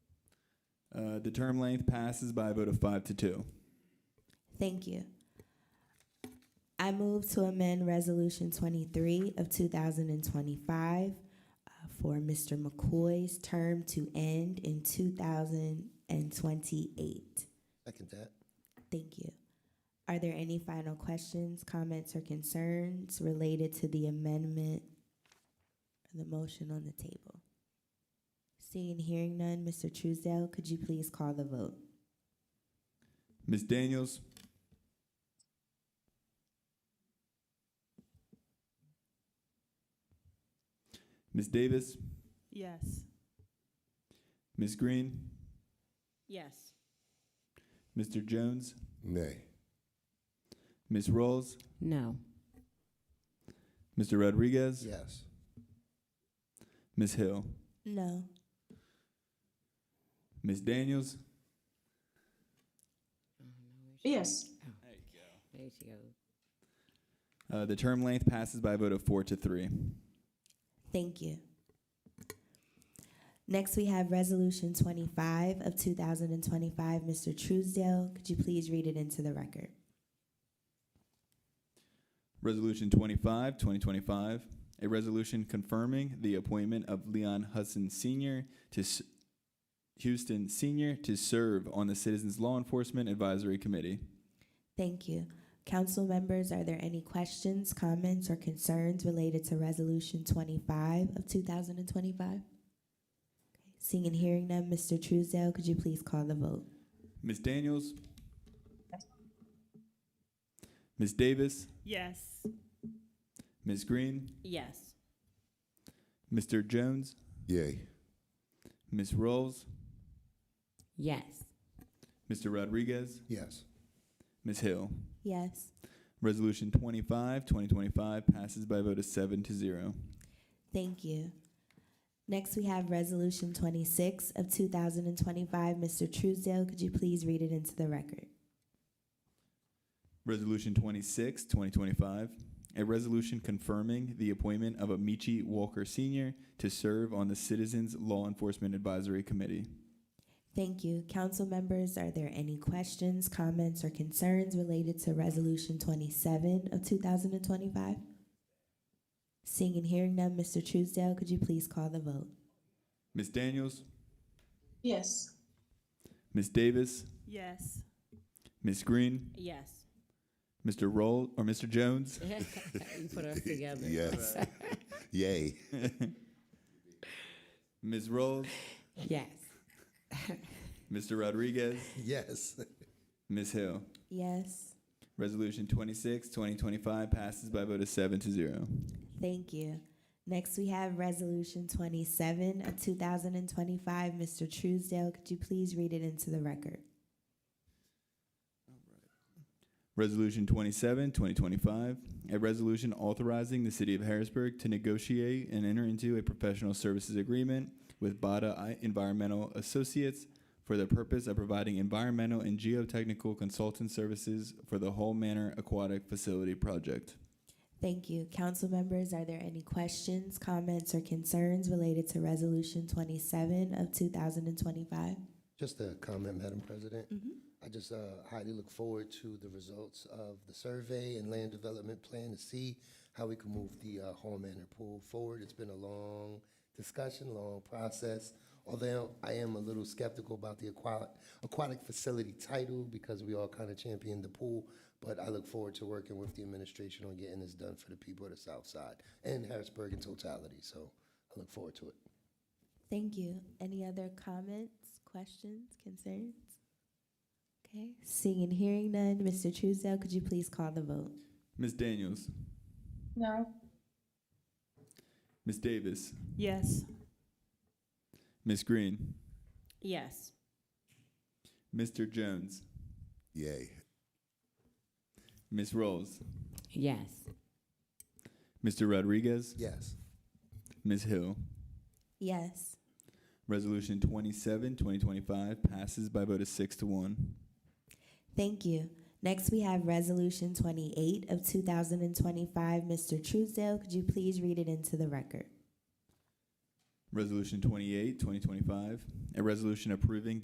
Uh, the term length passes by a vote of five to two. Thank you. I move to amend Resolution 23 of 2025 uh, for Mr. McCoy's term to end in 2028. Second that. Thank you. Are there any final questions, comments, or concerns related to the amendment or the motion on the table? Seeing and hearing none, Mr. Truesdale, could you please call the vote? Ms. Daniels, Ms. Davis, Yes. Ms. Green, Yes. Mr. Jones, Nay. Ms. Rolls, No. Mr. Rodriguez, Yes. Ms. Hill, No. Ms. Daniels, Yes. There you go. Uh, the term length passes by a vote of four to three. Thank you. Next, we have Resolution 25 of 2025. Mr. Truesdale, could you please read it into the record? Resolution 25, 2025, a resolution confirming the appointment of Leon Hudson Sr. to s- Houston Sr. to serve on the Citizens Law Enforcement Advisory Committee. Thank you. Council members, are there any questions, comments, or concerns related to Resolution 25 of 2025? Okay. Seeing and hearing none, Mr. Truesdale, could you please call the vote? Ms. Daniels? Ms. Davis? Yes. Ms. Green? Yes. Mr. Jones? Yay. Ms. Rolls? Yes. Mr. Rodriguez? Yes. Ms. Hill? Yes. Resolution 25, 2025 passes by a vote of seven to zero. Thank you. Next, we have Resolution 26 of 2025. Mr. Truesdale, could you please read it into the record? Resolution 26, 2025, a resolution confirming the appointment of Amici Walker Sr. to serve on the Citizens Law Enforcement Advisory Committee. Thank you. Council members, are there any questions, comments, or concerns related to Resolution 27 of 2025? Seeing and hearing none, Mr. Truesdale, could you please call the vote? Ms. Daniels, Yes. Ms. Davis, Yes. Ms. Green, Yes. Mr. Roll, or Mr. Jones, you put us together. Yes. Yay. Ms. Rolls, Yes. Mr. Rodriguez, Yes. Ms. Hill. Yes. Resolution 26, 2025 passes by a vote of seven to zero. Thank you. Next, we have Resolution 27 of 2025. Mr. Truesdale, could you please read it into the record? Resolution 27, 2025, a resolution authorizing the City of Harrisburg to negotiate and enter into a professional services agreement with Bada I- Environmental Associates for the purpose of providing environmental and geotechnical consultant services for the Hall Manor Aquatic Facility Project. Thank you. Council members, are there any questions, comments, or concerns related to Resolution 27 of 2025? Just a comment, Madam President. Mhm. I just uh, highly look forward to the results of the survey and land development plan to see how we can move the uh, Hall Manor Pool forward. It's been a long discussion, long process. Although I am a little skeptical about the aquatic, aquatic facility title because we all kind of championed the pool, but I look forward to working with the administration on getting this done for the people of the South Side and Harrisburg in totality. So I look forward to it. Thank you. Any other comments, questions, concerns? Okay, seeing and hearing none, Mr. Truesdale, could you please call the vote? Ms. Daniels, No. Ms. Davis, Yes. Ms. Green, Yes. Mr. Jones, Yay. Ms. Rolls, Yes. Mr. Rodriguez, Yes. Ms. Hill. Yes. Resolution 27, 2025 passes by a vote of six to one. Thank you. Next, we have Resolution 28 of 2025. Mr. Truesdale, could you please read it into the record? Resolution 28, 2025, a resolution approving